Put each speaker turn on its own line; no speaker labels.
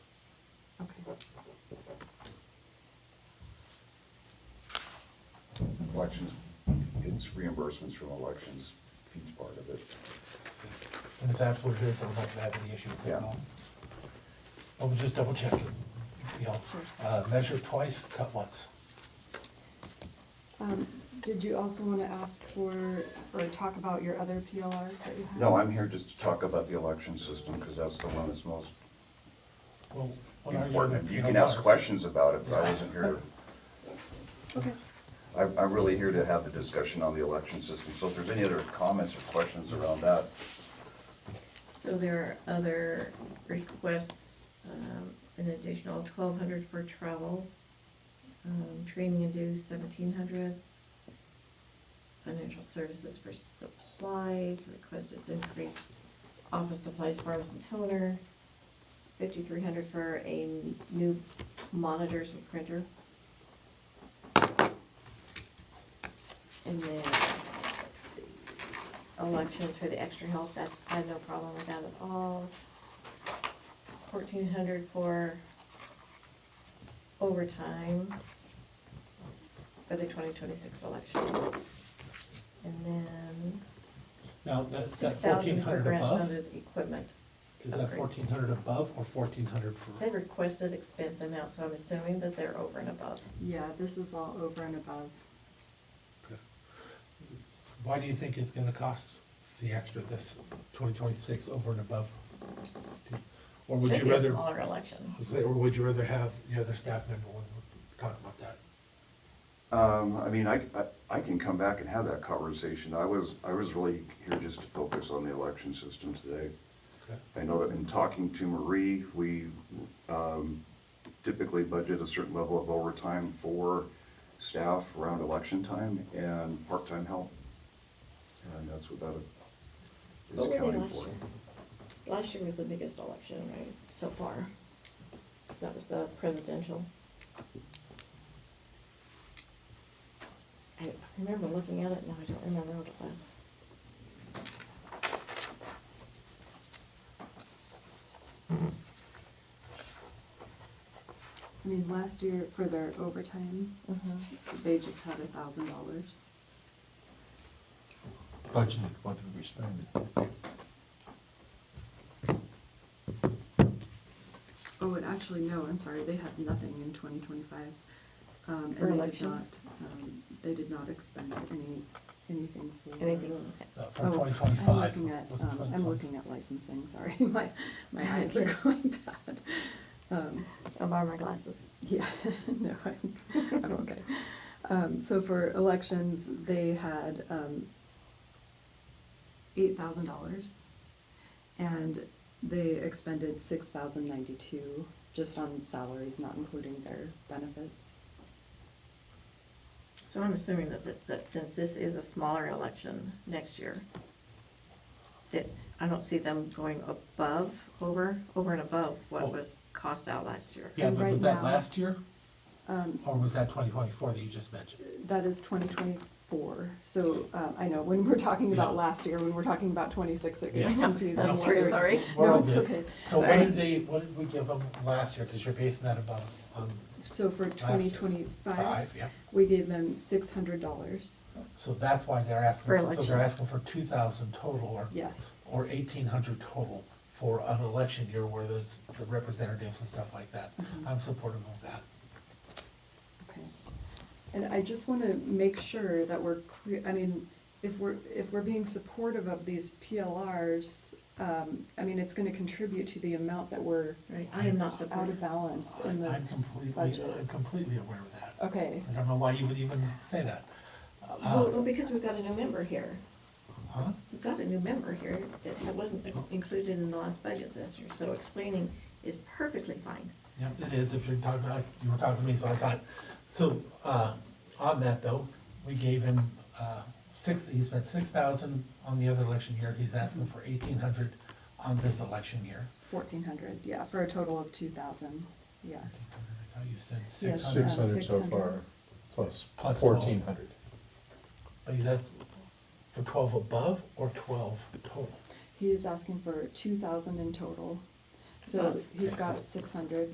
Elections, it's reimbursements from elections, fees part of it.
And if that's what it is, I'm not gonna have any issue with
Yeah.
that at all. I was just double checking, you know, uh, measure twice, cut once.
Um, Did you also want to ask for, or talk about your other PLRs that you have?
No, I'm here just to talk about the election system, because that's the one that's most
Well, what are your other
important. You can ask
PLRs?
questions about it, but I wasn't here,
Okay,
I, I'm really here to have the discussion on the election system. So if there's any other comments or questions around that,
So there are other requests, um, an additional twelve hundred for travel, um, training and dues seventeen hundred. Financial services for supplies, request is increased, office supplies, farms and toner, fifty-three hundred for a new monitors and printer. And then, let's see, elections for the extra help, that's, I have no problem with that at all. Fourteen hundred for overtime for the twenty twenty-six election. And then
Now, that's,
six
that fourteen
thousand for
hundred above,
grant-funded equipment.
is that
upgrades.
fourteen hundred above or fourteen hundred
It Said
for?
requested expense amount, so I'm assuming that they're over and above.
yeah, this is all over and above.
Why do you think it's gonna cost the extra this twenty twenty-six over and above? Or would
Should
you
be a
rather,
smaller election.
or would you rather have your other staff member when we talk about that?
Um, I mean, I, I, I can come back and have that conversation. I was, I was really here just to focus on the election system today.
Okay.
I know that in talking to Marie, we, um, typically budget a certain level of overtime for staff around election time and part-time help. And that's what that is
What were they
accounting
last
for.
year? Last year was the biggest election, right, so far. 'Cause that was the presidential. I remember looking at it, now I don't remember what it was.
I mean, last year for their overtime, they just had a thousand dollars.
budgeted, what did we spend?
Oh, and actually, no, I'm sorry, they had nothing in twenty twenty-five. Um,
For
and they did
elections?
not, um, they did not expend any, anything for.
Anything,
Oh,
Uh, For
I'm
twenty twenty-five?
looking at, um, I'm looking at licensing, sorry, my, my eyes are going bad. Um,
I'll borrow my glasses.
Yeah, no, I'm, I'm Oh, okay. Um, so for elections, they had, um, eight thousand dollars. And they expended six thousand ninety-two just on salaries, not including their benefits.
So I'm assuming that, that, that since this is a smaller election next year, that I don't see them going above, over, over and above
Oh.
what was cost out last year.
Yeah,
And
but
right
was that
now-
last year,
Um,
or was that twenty twenty-four that you just mentioned?
that is twenty twenty-four, so, um, I know, when we're talking about
Yeah.
last year, when we're talking about twenty-six, it
Yeah.
gets confusing.
That's
whether
true,
it's-
sorry.
No,
Well,
it's
the-
okay.
So what
Sorry.
did they, what did we give them last year, cause you're basing that about, on
So for
Last
twenty
year's.
twenty-five,
five, yeah,
we gave them six hundred dollars,
so that's why they're
For
asking, for- so they're
elections.
asking for two thousand total, or,
yes,
or eighteen hundred total for an election year where there's the representatives and stuff like that,
Mm-hmm.
I'm supportive of that.
okay. And I just wanna make sure that we're clear, I mean, if we're, if we're being supportive of these PLRs, um, I mean, it's gonna contribute to the amount that we're
Right, I am not
out of
supportive.
balance in the,
I'm completely,
budget.
I'm completely aware of that,
okay,
I don't know why you would even say that.
Well,
Uh,
well, because we've got a new member here.
huh?
We've got a new member here that ha- wasn't included in the last budget this year, so explaining is perfectly fine.
Yeah, it is, if you're talking, I- you were talking to me, so I thought, so, uh, on that though, we gave him, uh, six, he spent six thousand on the other election year, he's asking for eighteen hundred on this election year.
fourteen hundred, yeah, for a total of two thousand, yes.
I thought you said six
Yes,
Six
hundred,
uh,
hundred so
600.
far, plus
Plus
fourteen hundred.
but he's asking for twelve above or twelve total?
He is asking for two thousand in total, so
Above.
he's got six hundred.